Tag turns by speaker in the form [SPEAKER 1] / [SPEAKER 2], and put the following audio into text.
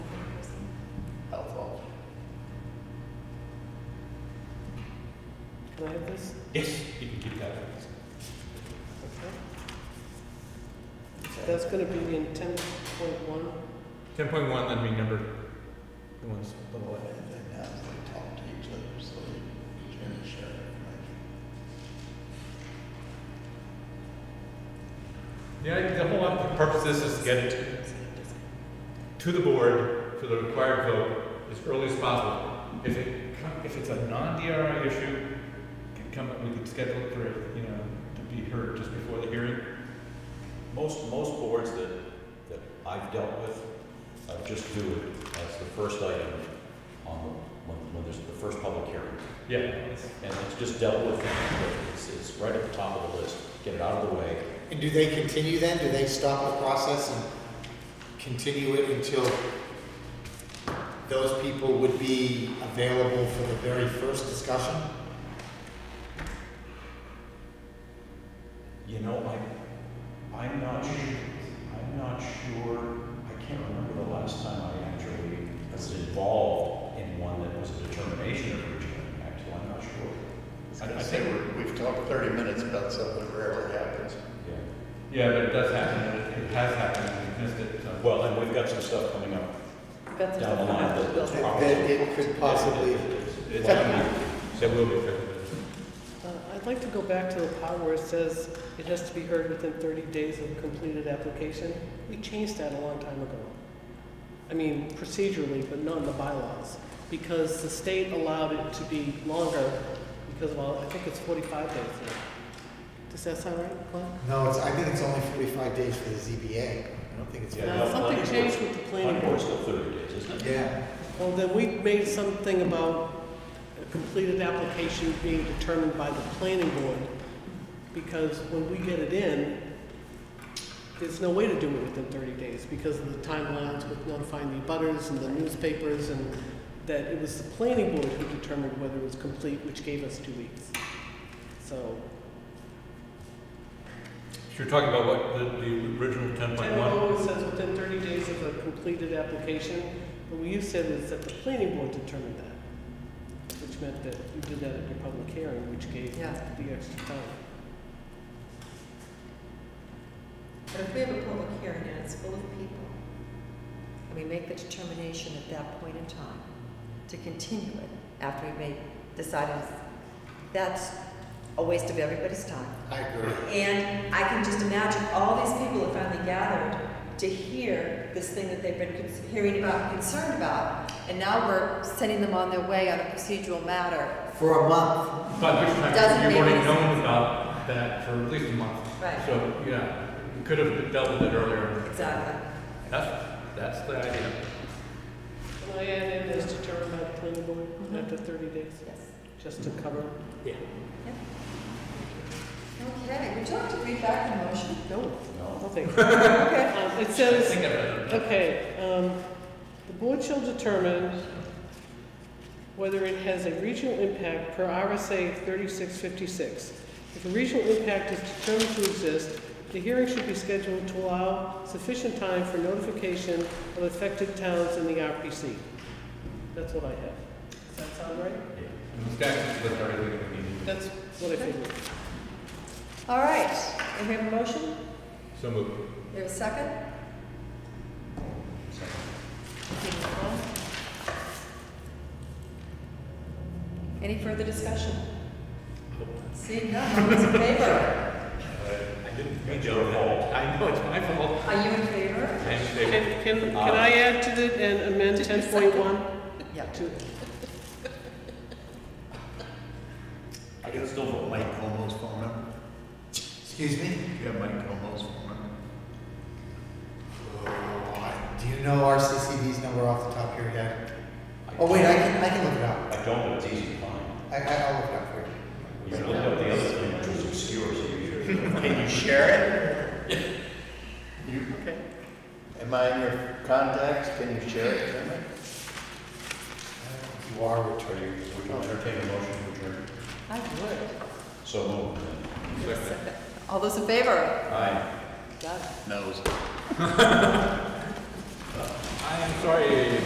[SPEAKER 1] Do I have this?
[SPEAKER 2] Yes, you can keep that.
[SPEAKER 1] Okay. That's gonna be in ten point one.
[SPEAKER 2] Ten point one, then we numbered the ones below it. Yeah, the whole the purpose of this is to get it to the board for the required vote as early as possible. If it, co- if it's a non-DRI issue, can come, we could schedule it for, you know, to be heard just before the hearing.
[SPEAKER 3] Most, most boards that, that I've dealt with, uh, just do it as the first item on, the- when, when there's the first public hearing.
[SPEAKER 2] Yeah, it's-
[SPEAKER 3] And it's just dealt with, it's, it's right at the top of the list, get it out of the way.
[SPEAKER 4] And do they continue then? Do they stop the process and continue it until those people would be available for the very first discussion?
[SPEAKER 3] You know, I, I'm not, su- I'm not sure, I can't remember the last time I actually was involved in one that was a determination of regional impact, so I'm not sure.
[SPEAKER 2] I- I
[SPEAKER 5] I
[SPEAKER 2] think-
[SPEAKER 5] think we've talked 30 minutes about something that rarely happens.
[SPEAKER 3] Yeah.
[SPEAKER 2] yeah, but it does happen, and it it has happened, we missed it, so.
[SPEAKER 3] Well, and we've got some stuff coming up
[SPEAKER 1] Got
[SPEAKER 3] down the line that- that's
[SPEAKER 4] That
[SPEAKER 3] probably.
[SPEAKER 4] that it could possibly,
[SPEAKER 2] It's gonna be, that will be affected.
[SPEAKER 1] Uh, I'd like to go back to the part where it says it has to be heard within thirty days of completed application. We changed that a long time ago. I mean, procedurally, but not in the bylaws, because the state allowed it to be longer because, well, I think it's forty-five days now. Does that sound right, Glenn?
[SPEAKER 4] no, it's, I think it's only forty-five days for the ZBA. I don't think it's.
[SPEAKER 3] Yeah,
[SPEAKER 1] Now,
[SPEAKER 3] no,
[SPEAKER 1] Uh, something
[SPEAKER 3] planning
[SPEAKER 1] changed with the planning
[SPEAKER 3] Planning
[SPEAKER 1] board.
[SPEAKER 3] board's still thirty days, isn't it?
[SPEAKER 4] Yeah,
[SPEAKER 1] Well, then we made something about a completed application being determined by the planning board, because when we get it in, there's no way to do it within thirty days because of the timelines with notifying the butters and the newspapers and that it was the planning board who determined whether it was complete, which gave us two weeks. So,
[SPEAKER 2] You're talking about what, the, the original ten point
[SPEAKER 1] ten
[SPEAKER 2] one?
[SPEAKER 1] oh says within thirty days of a completed application, but what you said is that the planning board determined that, which meant that you did that at your public hearing, which gave
[SPEAKER 6] Yeah.
[SPEAKER 1] the extra time.
[SPEAKER 6] But if we have a public hearing and it's full of people, and we make the determination at that point in time to continue it after we've made, decided, that's a waste of everybody's time.
[SPEAKER 4] I agree.
[SPEAKER 6] And I can just imagine all these people have finally gathered to hear this thing that they've been con- hearing about, and concerned about. And now we're sending them on their way on a procedural matter.
[SPEAKER 4] For a month,
[SPEAKER 2] By which time,
[SPEAKER 6] Doesn't
[SPEAKER 2] you've
[SPEAKER 6] make
[SPEAKER 2] already
[SPEAKER 6] any
[SPEAKER 2] known about that for at least a month.
[SPEAKER 6] Right.
[SPEAKER 2] So, yeah, we could have dealt with it earlier.
[SPEAKER 6] Exactly.
[SPEAKER 2] That's, that's the idea.
[SPEAKER 1] Can I add in Mm-hmm. this determined by the planning board
[SPEAKER 6] Mhm.
[SPEAKER 1] after thirty days,
[SPEAKER 6] Yes.
[SPEAKER 1] just to cover?
[SPEAKER 2] Yeah.
[SPEAKER 6] Okay, would you like to read back the motion?
[SPEAKER 1] No.
[SPEAKER 3] No.
[SPEAKER 1] No, thank
[SPEAKER 6] Okay.
[SPEAKER 1] Um, It
[SPEAKER 2] I
[SPEAKER 1] says,
[SPEAKER 2] think I've done
[SPEAKER 1] Okay, um, the board shall determine whether it has a regional impact per RSA thirty-six fifty-six. If a regional impact is determined to exist, the hearing should be scheduled to allow sufficient time for notification of affected towns in the RPC. That's what I have. Does that sound right?
[SPEAKER 2] it. The statute lists everything that we need.
[SPEAKER 1] That's what I figured.
[SPEAKER 6] All right, and we have a motion?
[SPEAKER 2] So move.
[SPEAKER 6] We have a second? Any further discussion? Seeing none, all those in favor?
[SPEAKER 2] I didn't
[SPEAKER 3] mean to overhaul.
[SPEAKER 2] I know, it's my fault.
[SPEAKER 6] Are you in favor?
[SPEAKER 2] I'm
[SPEAKER 1] Can,
[SPEAKER 2] mistaken.
[SPEAKER 1] can, can I add to the, and amend ten point one
[SPEAKER 6] Yeah.
[SPEAKER 1] to,
[SPEAKER 3] I can still vote.
[SPEAKER 5] Mike Como's phone number?
[SPEAKER 4] excuse me?
[SPEAKER 5] Do you have Mike Como's phone number?
[SPEAKER 4] Oh, I- Do you know RCCD's number off the top of your head? Oh, wait, I can, I can look it up.
[SPEAKER 3] I don't, but it's easy to find.
[SPEAKER 4] I, I- I'll look it up for you.
[SPEAKER 3] You looked up the other thing, which was obscure, so you should.
[SPEAKER 5] Can you share it? You,
[SPEAKER 1] okay?
[SPEAKER 5] am I in your contacts? Can you share it? with me?
[SPEAKER 3] You are returning, would you entertain a motion to adjourn?
[SPEAKER 6] I would.
[SPEAKER 3] So moved.
[SPEAKER 6] All those in favor?
[SPEAKER 3] Aye.
[SPEAKER 6] Done.
[SPEAKER 5] Knows.
[SPEAKER 2] I am sorry.